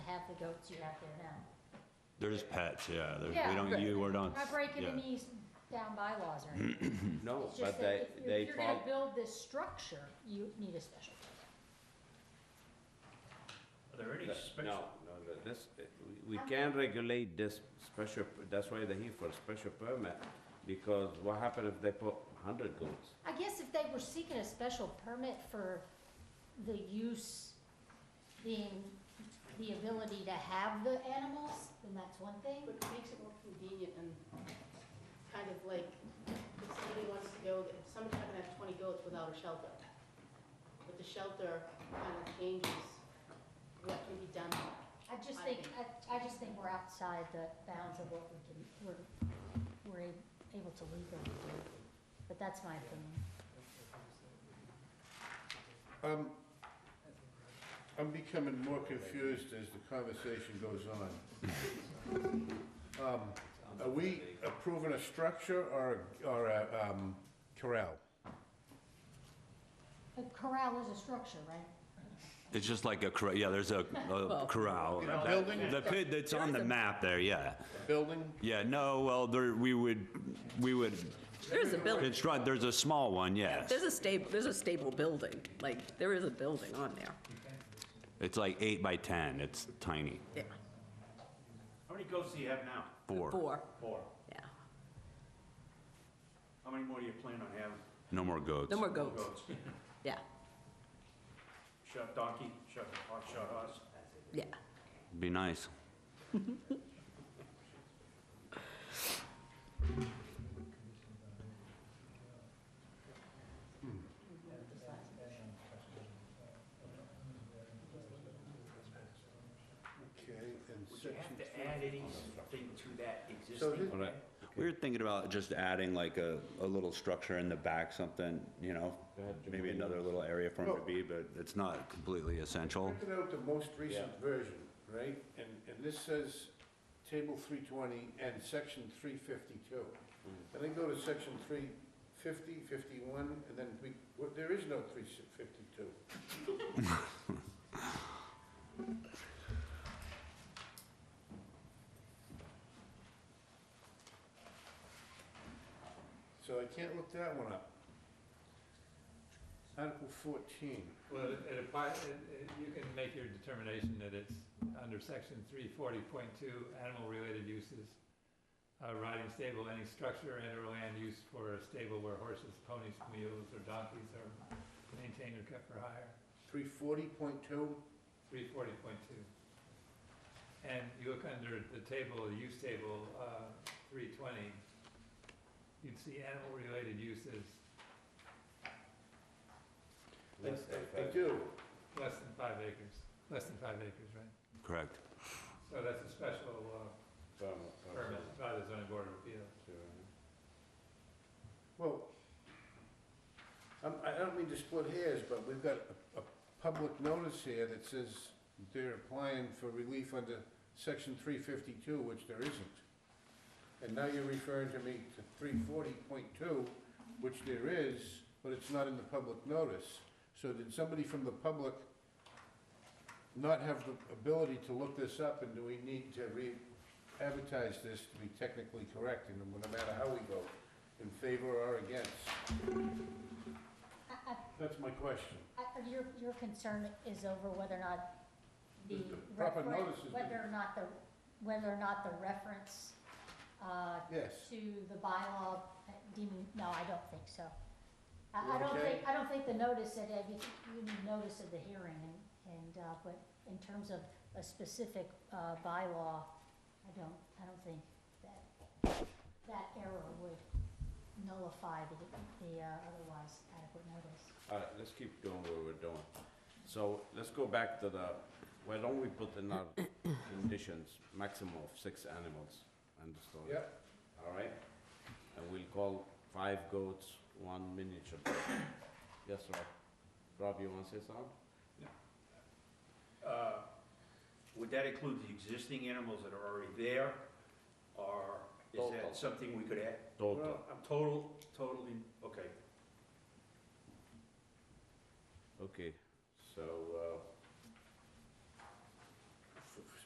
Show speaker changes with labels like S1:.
S1: the goats you have there now.
S2: There's pets, yeah, there,
S1: Yeah,
S2: we don't, you, we're not,
S1: Not breaking
S2: yeah.
S1: any down bylaws or anything.
S3: No,
S1: It's
S3: but
S1: just
S3: they,
S1: that if you're,
S3: they
S1: if you're
S3: follow,
S1: gonna build this structure, you need a special
S4: Are there any
S3: no, no,
S4: special,
S3: no, this, we can regulate this special, that's why they're here for a special permit, because what happen if they put hundred goats?
S1: I guess if they were seeking a special permit for the use, being, the ability to have the animals, then that's one thing.
S5: But it makes it more convenient and kind of like, if somebody wants to go, if somebody's not gonna have twenty goats without a shelter. But the shelter kind of changes what can be done.
S1: I just think, I, I just think we're outside the bounds of what we can, we're, we're a- able to legally do. But that's my opinion.
S6: Um, I'm becoming more confused as the conversation goes on. Um, Are we approving a structure or, a- or a um, corral?
S1: A corral is a structure, right?
S2: It's just like a corral, yeah, there's a, a corral.
S6: You know, building,
S2: The pit that's on the map there, yeah.
S6: building?
S2: Yeah, no, well, there, we would, we would
S7: There's a building,
S2: construct, there's a small one, yes.
S7: there's a stable, there's a stable building, like, there is a building on there,
S2: It's like eight by 10, it's tiny,
S7: yeah,
S4: how many goats do you have now?
S2: four,
S7: four,
S4: Four.
S7: yeah.
S4: How many more do you plan on having?
S2: no more goats.
S7: No more goats,
S4: Goats.
S7: yeah,
S4: Shot donkey, shot, hot shot horse.
S7: yeah.
S2: Be nice.
S6: Okay, and
S4: Would you
S6: section
S4: have to
S6: three.
S4: add anything to that
S6: So
S4: existing?
S6: this,
S3: All right,
S2: We were thinking about just adding like a, a little structure in the back, something, you know?
S3: Go ahead, Jim.
S2: Maybe another little area for them to be, but it's not completely essential.
S6: printed out the most recent version, right? And, and this says table three twenty and section three fifty-two. And then go to section 350, 51, and then we, well, there is no three fifty-two. So I can't look that one up. Article fourteen.
S8: Well, it- it applies, you can make your determination that it's under section three forty point two, animal-related uses. Uh, riding stable, any structure and or land used for a stable where horses, ponies, mules, or donkeys are maintained or kept for hire,
S6: Three forty point two,
S8: three forty point two. And you look under the table, the use table, uh, three twenty, you'd see animal-related uses
S3: let's
S6: I
S3: say
S6: do.
S8: less than five acres, less than five acres, right?
S2: Correct.
S8: So Oh, that's a special, uh,
S3: five, um,
S8: permit by the zoning board of appeals.
S6: Well, I'm, I don't mean to split hairs, but we've got a, a public notice here that says they're applying for relief under section three fifty-two, which there isn't. And now you're referring to me to three forty point two, which there is, but it's not in the public notice. So did somebody from the public not have the ability to look this up, and do we need to re-advertise this to be technically correct, and no matter how we vote, in favor or against?
S1: I, I
S6: That's my question.
S1: I- uh, Your, your concern is over whether or not the
S6: The proper
S1: reference,
S6: notice is-
S1: whether or not the, whether or not the reference uh,
S6: Yes.
S1: to the bylaw uh, deeming, no, I don't think so. I, I don't
S6: Okay.
S1: think, I don't think the notice, that, uh, you you need notice of the hearing and, and, uh, but in terms of a specific uh, bylaw, I don't, I don't think that, that error would nullify the, the uh, otherwise adequate notice.
S3: All right, let's keep doing what we're doing. So let's go back to the, why don't we put in our conditions, maximum of six animals, understood?
S6: Yep.
S3: All right? And we'll call five goats, one miniature. goat. Yes, Rob? Rob, you wanna say something?
S4: Uh, Would that include the existing animals that are already there? Or is
S3: Total.
S4: that something we could add?
S3: Total.
S4: I'm total, totally, okay.
S3: Okay, so, uh,